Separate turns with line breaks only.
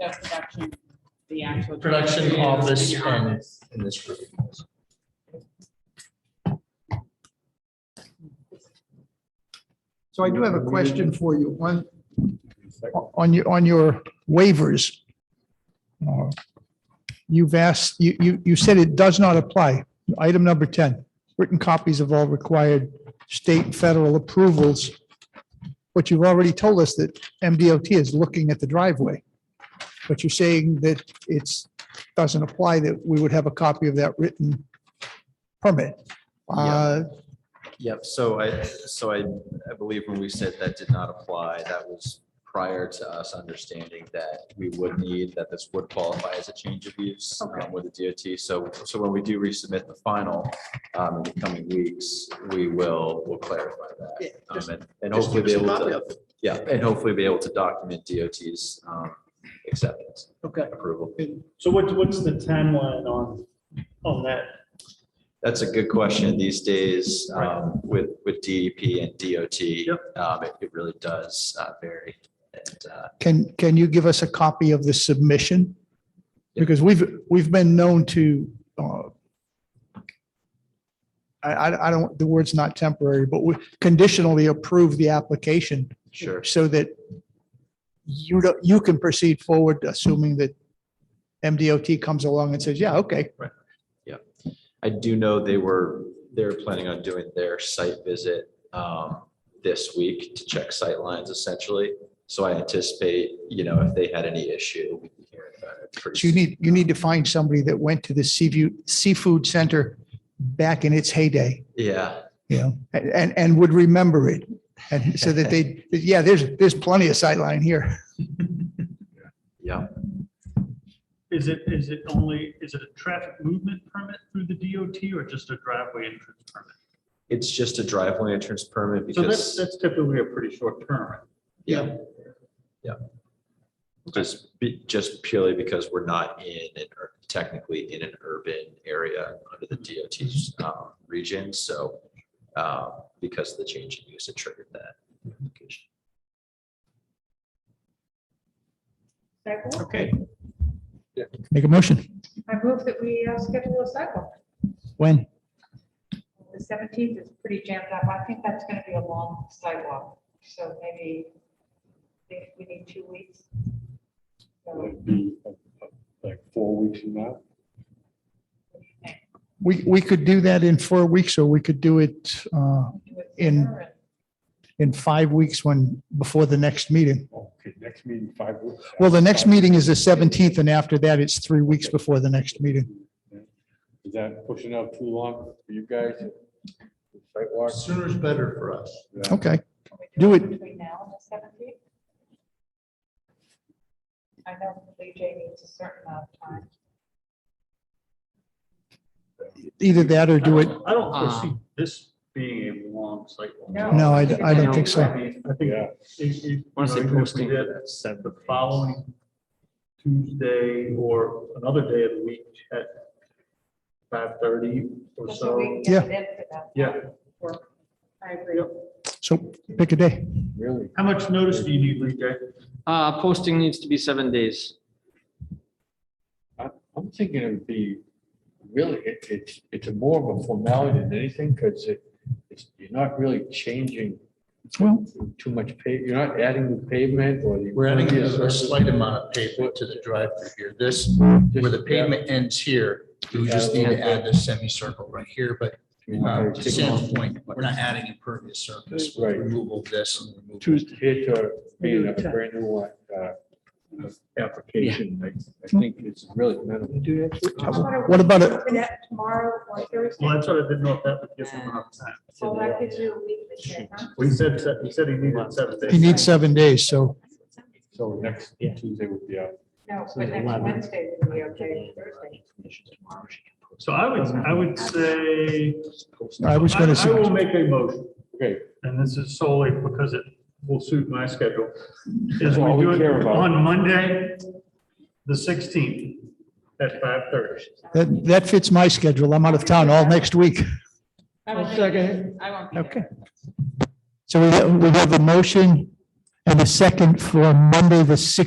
That's production, the actual.
Production office
Your
and-
office.
in this room.
So I do have a question for you. One, on your, on your waivers. uh, You've asked, you, you, you said it does not apply. Item number 10, written copies of all required state and federal approvals. But you've already told us that MDOT is looking at the driveway. But you're saying that it's, doesn't apply, that we would have a copy of that written permit. Uh,
Yep, so I, so I, I believe when we said that did not apply, that was prior to us understanding that we would need, that this would qualify as a change of use um, with the DOT. So, so when we do resubmit the final, um, in the coming weeks, we will, will clarify
Yeah,
that.
just-
Um, and- And
Just
hopefully
give
be
us a
able
copy
to, yeah, and hopefully be able to document DOT's, um, acceptance,
Okay.
approval.
So what, what's the timeline on, on that?
That's a good question. These days, um, with, with DEP and DOT. Um, it, it really does uh, vary. And, uh,
Can, can you give us a copy of the submission?
Yeah.
Because we've, we've been known to, uh, I, I, I don't, the word's not temporary, but we conditionally approve the application
sure,
so that you don't, you can proceed forward, assuming that MDOT comes along and says, yeah, okay.
I do know they were, they were planning on doing their site visit, um, this week to check sight lines essentially. So I anticipate, you know, if they had any issue, we'd be hearing about it. pretty
So you
soon.
need, you need to find somebody that went to the Seaview Seafood Center back in its heyday.
Yeah,
you know, and- and, and would remember it. And so that they, yeah, there's, there's plenty of sightline here.
yeah.
Is it, is it only, is it a traffic movement permit through the DOT or just a driveway entrance permit?
It's just a driveway entrance permit
So that's,
because,
that's typically a pretty short term.
yeah. Yeah. Just, be- just purely because we're not in, an ur- technically in an urban area under the DOT's, um, region. So, uh, because of the change in use, it triggered that. application.
Cycle.
Okay.
Make a motion.
I move that we uh, schedule a cycle.
When?
The seventeenth is pretty jammed up. I think that's gonna be a long sidewalk, so maybe I think we need two weeks. So, what do
would be like four weeks from now.
you think?
We, we could do that in four weeks or we could do it uh,
Do it
In-
sooner and-
in five weeks when, before the next meeting.
Okay, next meeting, five weeks.
Well, the next meeting is the 17th and after that it's three weeks before the next meeting.
Is that pushing out too long for you guys? Sidewalk?
Sooner is better for us.
Yeah.
Okay.
can we
Do it-
Between now and the seventeenth? I know BJ needs a certain amount of time.
Either that or do it. uh,
I don't foresee this being a long cycle.
No, I, I don't think
I
so.
mean, I think
Yeah.
if, if.
Once they
you know, even if we
posting.
did The following Tuesday or another day of the week at five thirty or
Just so we
so.
can get it in for that.
Yeah.
Work. I agree.
So pick a day.
Really?
How much notice do you need, Lee J?
Uh, posting needs to be seven days.
I'm thinking it'd be, really, it, it's, it's more of a formality than anything, because it, it's, you're not really changing
Well,
too much pave, you're not adding the pavement or the.
We're adding a a
impervious
slight amount of pavement to the drive-through here. This,
surface,
where the
just-
pavement ends here, we just need to add this semicircle right here, but uh, to Sam's point, we're not adding impervious surface,
Right.
removal of this and removal.
Tuesday here to being a brand new uh, application, I I think it's really minimal.
What about it?
For that Tomorrow or Thursday.
Well, that's what I didn't know if that would give him enough time.
Well, that gives you a week to get, huh?
Well, he said, se- he said he needed seven days.
you need seven days, so
So next Tuesday would be out.
No, but next Wednesday would be okay, Thursday.
So I would, I would say.
I was going
I will
to,
make a motion,
Okay,
and this is solely because it will suit my schedule. Is
That's all we
do it
care about.
On Monday, the sixteenth, at five thirty.
that, that fits my schedule. I'm out of town all next week.
I will second. I won't be there.
Okay. So we have, we have a motion and a second for Monday, the 6th.